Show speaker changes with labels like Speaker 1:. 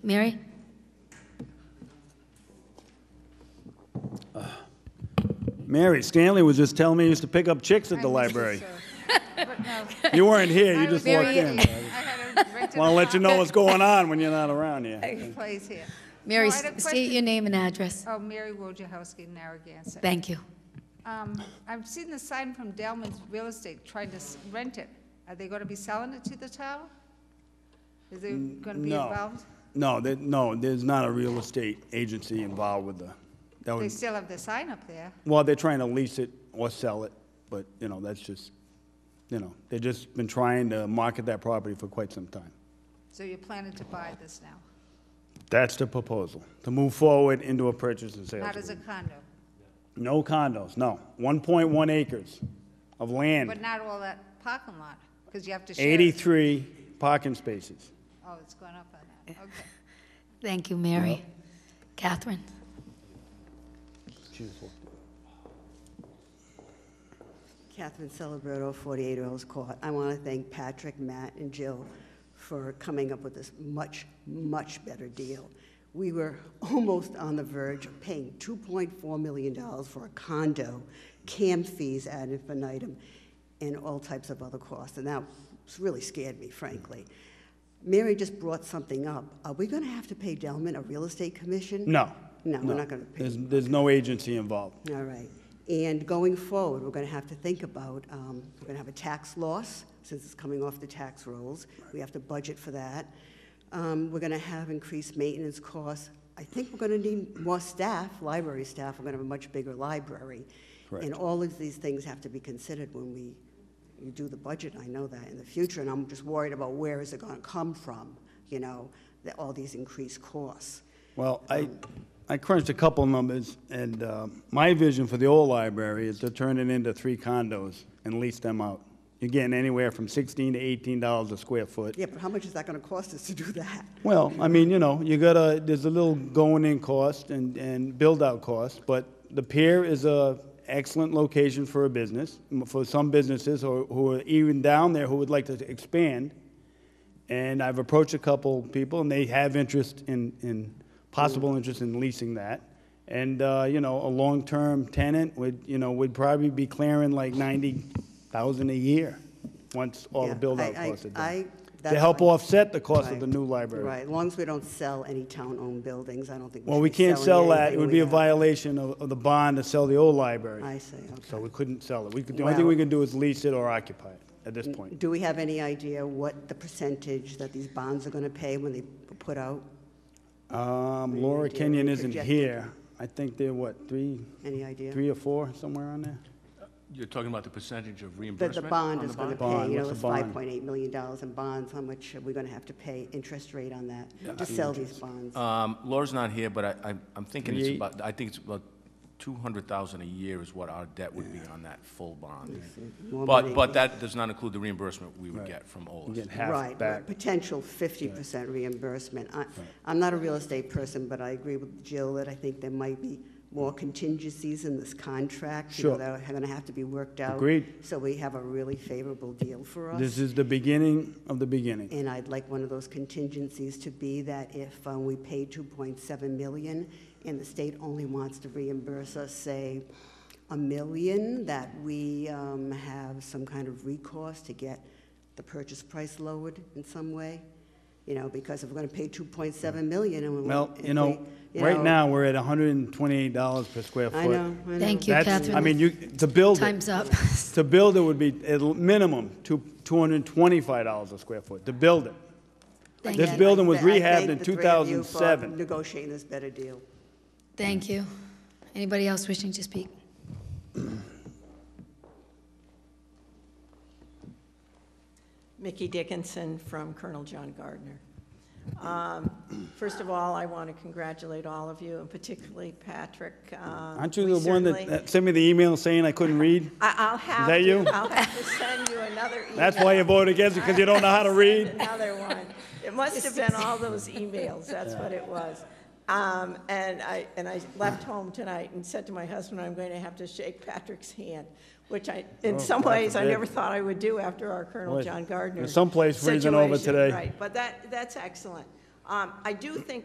Speaker 1: Mary?
Speaker 2: Mary Stanley was just telling me he used to pick up chicks at the library. You weren't here, you just walked in.
Speaker 3: I had a right to
Speaker 2: Want to
Speaker 3: the
Speaker 2: let you know
Speaker 3: top.
Speaker 2: what's going on when you're not around here.
Speaker 3: Place here.
Speaker 1: Mary,
Speaker 3: No, I had a
Speaker 1: state
Speaker 3: question.
Speaker 1: your name and address.
Speaker 3: Oh, Mary Wojciechowski, Narragansett.
Speaker 1: Thank you.
Speaker 3: Um, I've seen the sign from Delman's Real Estate trying to s- rent it. Are they going to be selling it to the town? Is there going to be
Speaker 2: Mm, No,
Speaker 3: involved?
Speaker 2: no, there- no, there's not a real estate agency involved with the, that
Speaker 3: They
Speaker 2: would,
Speaker 3: still have the sign up there.
Speaker 2: well, they're trying to lease it or sell it, but, you know, that's just, you know, they've just been trying to market that property for quite some time.
Speaker 3: So you're planning to buy this now,
Speaker 2: That's the proposal, to move forward into a purchase and sales
Speaker 3: not as a
Speaker 2: agreement.
Speaker 3: condo,
Speaker 2: No condos, no. 1.1 acres of land,
Speaker 3: but not all that parking lot, because you have to share. it.
Speaker 2: 83 parking spaces.
Speaker 3: Oh, it's going up on
Speaker 2: Eh.
Speaker 3: that, okay.
Speaker 1: Thank you, Mary. Catherine?
Speaker 4: Catherine Celebrato, 48 Earls Court. I want to thank Patrick, Matt, and Jill for coming up with this much, much better deal. We were almost on the verge of paying $2.4 million for a condo, cam fees ad infinitum, and all types of other costs, and that really scared me, frankly. Mary just brought something up. Are we going to have to pay Delman a real estate commission?
Speaker 2: No.
Speaker 4: No, we're not going to pay.
Speaker 2: There's, there's no agency involved.
Speaker 4: All right. And going forward, we're going to have to think about, um, we're going to have a tax loss, since it's coming off the tax rolls. We have to budget for that. Um, We're going to have increased maintenance costs. I think we're going to need more staff, library staff. We're going to have a much bigger library.
Speaker 2: Correct.
Speaker 4: And all of these things have to be considered when we you do the budget, I know that, in the future, and I'm just worried about where is it going to come from, you know, the- all these increased costs.
Speaker 2: Well, I, I crunched a couple numbers, and uh, my vision for the old library is to turn it into three condos and lease them out. You're getting anywhere from 16 to 18 dollars a square foot.
Speaker 4: Yeah, but how much is that going to cost us to do that?
Speaker 2: Well, I mean, you know, you gotta, there's a little going-in cost and, and build-out cost, but the pier is a excellent location for a business, m- for some businesses who, who are even down there who would like to expand. And I've approached a couple people, and they have interest in, in, possible interest in leasing that. And, uh, you know, a long-term tenant would, you know, would probably be clearing like ninety thousand a year, once all
Speaker 4: Yeah,
Speaker 2: the
Speaker 4: I-
Speaker 2: build-out
Speaker 4: I-
Speaker 2: costs are
Speaker 4: I-
Speaker 2: done. To
Speaker 4: that's
Speaker 2: help
Speaker 4: fine.
Speaker 2: offset the cost of the
Speaker 4: Right.
Speaker 2: new library.
Speaker 4: Right, as long as we don't sell any town-owned buildings, I don't think.
Speaker 2: Well,
Speaker 4: should
Speaker 2: we
Speaker 4: be
Speaker 2: can't
Speaker 4: selling
Speaker 2: sell that, it
Speaker 4: anything
Speaker 2: would
Speaker 4: we
Speaker 2: be a
Speaker 4: have.
Speaker 2: violation of, of the bond to sell the old
Speaker 4: I
Speaker 2: library.
Speaker 4: see,
Speaker 2: So
Speaker 4: okay.
Speaker 2: we couldn't sell it. We could, the only thing
Speaker 4: Well- Mm,
Speaker 2: we could do is lease it or occupy it at this point.
Speaker 4: Do we have any idea what the percentage that these bonds are going to pay when they put out?
Speaker 2: Um, Laura
Speaker 4: do
Speaker 2: Kenyon isn't
Speaker 4: projected?
Speaker 2: here. I think they're what, three,
Speaker 4: Any idea?
Speaker 2: three or four, somewhere on there?
Speaker 5: You're talking about the percentage of
Speaker 4: That
Speaker 5: reimbursement?
Speaker 4: the bond
Speaker 5: on
Speaker 4: is going to
Speaker 5: bond?
Speaker 4: pay,
Speaker 2: Bond,
Speaker 4: you know,
Speaker 2: what's the
Speaker 4: it's
Speaker 2: bond?
Speaker 4: $5.8 million in bonds, how much are we going to have to pay interest rate on that to sell these bonds?
Speaker 5: Um, Laura's not here, but I, I'm- I'm thinking it's
Speaker 2: Three-
Speaker 5: about, I think it's about 200,000 a year is what our debt would be on that full bond.
Speaker 4: More
Speaker 5: But,
Speaker 4: money.
Speaker 5: but that does not include the reimbursement we would get from
Speaker 2: You
Speaker 5: OLS.
Speaker 2: Get half
Speaker 4: Right,
Speaker 2: back.
Speaker 4: right, potential 50% reimbursement. I- I'm not a real estate person, but I agree with Jill that I think there might be more contingencies in this contract. you know,
Speaker 2: Sure.
Speaker 4: That are going to have to be worked out.
Speaker 2: Agreed.
Speaker 4: So we have a really favorable deal for
Speaker 2: This
Speaker 4: us.
Speaker 2: is the beginning of the beginning.
Speaker 4: And I'd like one of those contingencies to be that if uh, we pay 2.7 million and the state only wants to reimburse us, say, a million, that we um, have some kind of recourse to get the purchase price lowered in some way. You know, because if we're going to pay 2.7 million and we
Speaker 2: Well,
Speaker 4: want.
Speaker 2: you know, right now, we're at hundred and twenty-eight dollars per square foot.
Speaker 4: I know, I know.
Speaker 1: Thank you,
Speaker 2: That's,
Speaker 1: Catherine.
Speaker 2: I mean, you, to build it.
Speaker 1: Time's up.
Speaker 2: To build it would be at l- minimum two, two hundred and twenty-five dollars a square foot, to build it.
Speaker 1: Thank
Speaker 2: This
Speaker 1: you.
Speaker 2: building was
Speaker 4: I thank
Speaker 2: rehabbed in
Speaker 4: the three of you for
Speaker 2: 2007.
Speaker 4: Negotiating this better deal.
Speaker 1: Thank you. Anybody else wishing to speak?
Speaker 6: Mickey Dickinson from Colonel John Gardner. Um, First of all, I want to congratulate all of you, and particularly Patrick. um,
Speaker 2: Aren't you the one that- that sent me the email saying I couldn't read?
Speaker 6: I'll have
Speaker 2: that
Speaker 6: to-
Speaker 2: you?
Speaker 6: I'll have to send you another email.
Speaker 2: That's why you voted against it, because you don't know how to read?
Speaker 6: Another one. It must have been all those emails, that's what it was. Um, And I, and I left home tonight and said to my husband, I'm going to have to shake Patrick's hand, which I, in some
Speaker 2: God
Speaker 6: ways, I
Speaker 2: forbid.
Speaker 6: never thought I would do after our Colonel
Speaker 2: Oh, Boy,
Speaker 6: John Gardner.
Speaker 2: there's someplace freezing over
Speaker 6: situation,
Speaker 2: today.
Speaker 6: Right, but that, that's excellent. Um, I do think